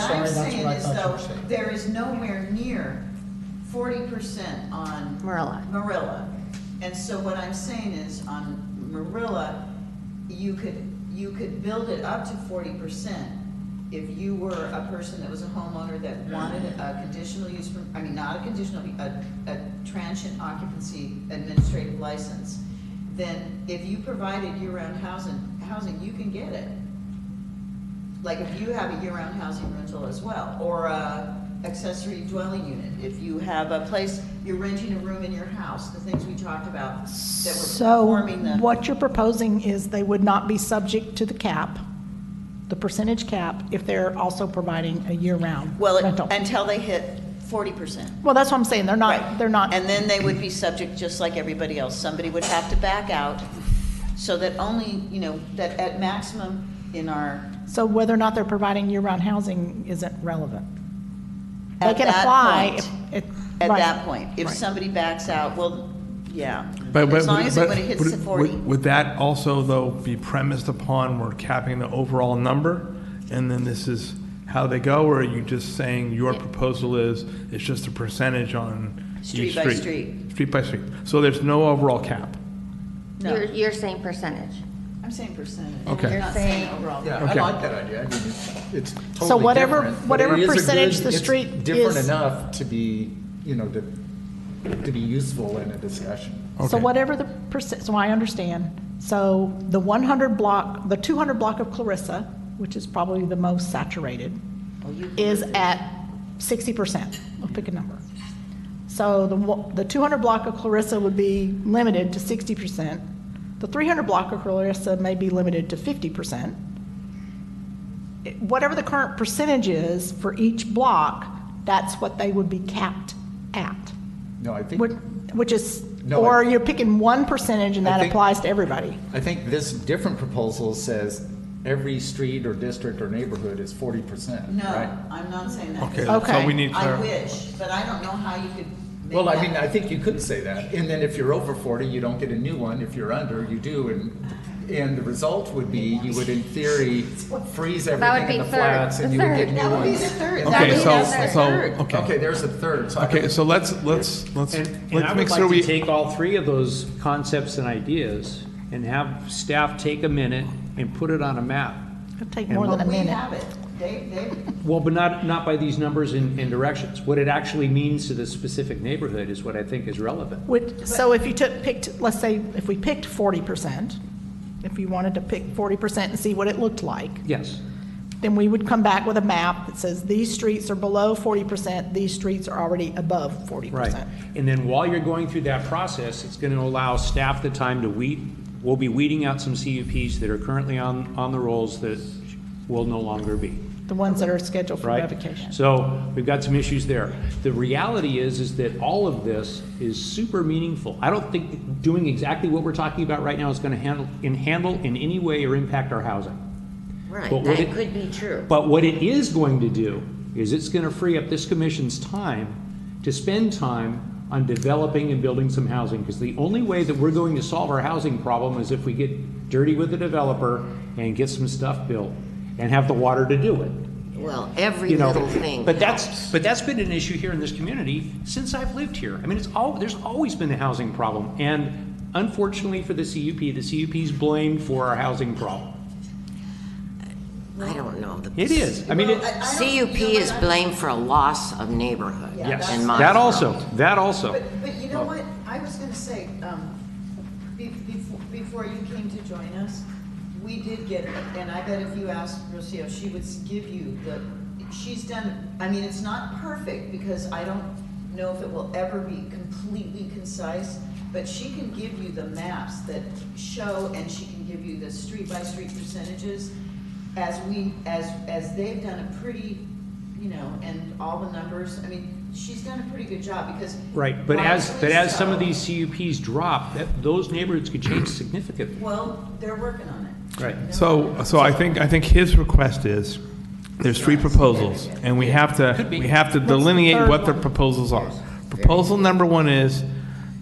sorry, I'm that's what saying I is thought you were though, saying. there is nowhere near forty percent on Marilla. Marilla. And so what I'm saying is on Marilla, you could, you could build it up to forty percent if you were a person that was a homeowner that wanted a conditional use, per- I mean, not a conditional, a, a transient occupancy administrative license, then if you provided year-round housing, housing, you can get it. Like if you have a year-round housing rental as well, or a accessory dwelling unit, if you have a place, you're renting a room in your house, the things we talked about that were So performing the. what you're proposing is they would not be subject to the cap, the percentage cap, if they're also providing a year-round Well, it- rental. until they hit forty percent. Well, that's what I'm saying, they're Right. not, they're not, And then they would be subject, just like everybody else, somebody would have to back out, so that only, you know, that at maximum in our. so whether or not they're providing year-round housing isn't relevant. They at can that apply. point- if- if- At right, that point, if right. somebody backs out, well, yeah. But, but, As long as it, but- when it hits would- the forty, would- Would that also, though, be premised upon we're capping the overall number? And then this is how they go, or are you just saying your proposal is, it's just a percentage on Street each by street? street. Street by street. So there's no overall cap? You're, no, you're saying percentage. I'm saying percentage. Okay. You're not saying Saying- overall. Yeah, I Okay. like that idea. I mean, it's- It's totally different. So whatever- but it whatever is a good- percentage the it's street Different is- enough to be, you know, to, to be useful in a discussion. So Okay. whatever the percent, so I understand. So the 100 block, the 200 block of Clarissa, which is probably the most saturated, Well, you- is at 60%. I'll pick a number. So the, wa- the 200 block of Clarissa would be limited to 60%. The 300 block of Clarissa may be limited to 50%. It- Whatever the current percentage is for each block, that's what they would be capped at. No, I think. Which which is, No, or I- you're picking one percentage and I that think- applies to everybody. I think this different proposal says every street or district or neighborhood is forty percent, No, right? I'm not saying that. Okay, 'cause so Okay. we need I clarity. wish, but I don't know how you could make Well, I that- mean, I think you could say that, and then if you're over forty, you don't get a new one, if you're under, you do, and, and the result would be, you would in theory freeze would everything in be the third, flats, the and you would third. get new That would be the ones. third. And Okay, That would That be so, the that's the third. so, third. Okay, okay. there's a third, so I Okay, would- so let's, let's, let's, And, and I let's make would sure like to we, take all three of those concepts and ideas and have staff take a minute and put it on a map. It'd take And more than a But we minute. have it. They, they, Well, but not, not by these numbers and, and directions. What it actually means to the specific neighborhood is what I think is relevant. Which, so if you took, picked, let's say, if we picked forty percent, if you wanted to pick forty percent and see what it looked like, Yes. then we would come back with a map that says these streets are below forty percent, these streets are already above forty Right. percent. And then while you're going through that process, it's going to allow staff the time to weed, we'll be weeding out some CUPs that are currently on, on the rolls that will no longer be. The ones that are scheduled for right? revocation. So we've got some issues there. The reality is, is that all of this is super meaningful. I don't think doing exactly what we're talking about right now is going to handle, in handle in any way or impact our housing. Right, But would that it- could be true. But what it is going to do is it's going to free up this commission's time to spend time on developing and building some housing. Because the only way that we're going to solve our housing problem is if we get dirty with the developer and get some stuff built and have the water to do it Well, every you know. little thing. But that's, but that's been an issue here in this community since I've lived here. I mean, it's all, there's always been a housing problem. And unfortunately for the CUP, the CUP's blamed for our housing problem. I don't know. The It is. I mean, Well, it, I- I don't- you know CUP what? is blamed for a loss of neighborhood. Yeah, yes, in that Monroe. also, that also. But, but you know what, I was gonna say, um, be, before, before you came to join us, we did get, and I bet if you asked Rocio, she would s- give you the, she's done, I mean, it's not perfect, because I don't know if it will ever be completely concise, but she can give you the maps that show, and she can give you the street-by-street percentages, as we, as, as they've done a pretty, you know, and all the numbers, I mean, she's done a pretty good job, because Right, but as, Rightfully but as some of so. these CUPs drop, that, those neighborhoods could change significantly. Well, they're working on it. Right. so, so I think, I think his request is, there's three proposals, and we have to, Could be. we have to What's the delineate third what the one? proposals are. Proposal number one is,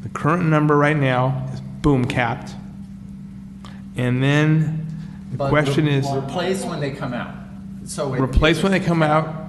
the current number right now is boom capped. And then, the But question re- is. Replace when they come out. So. it- Replace when they come out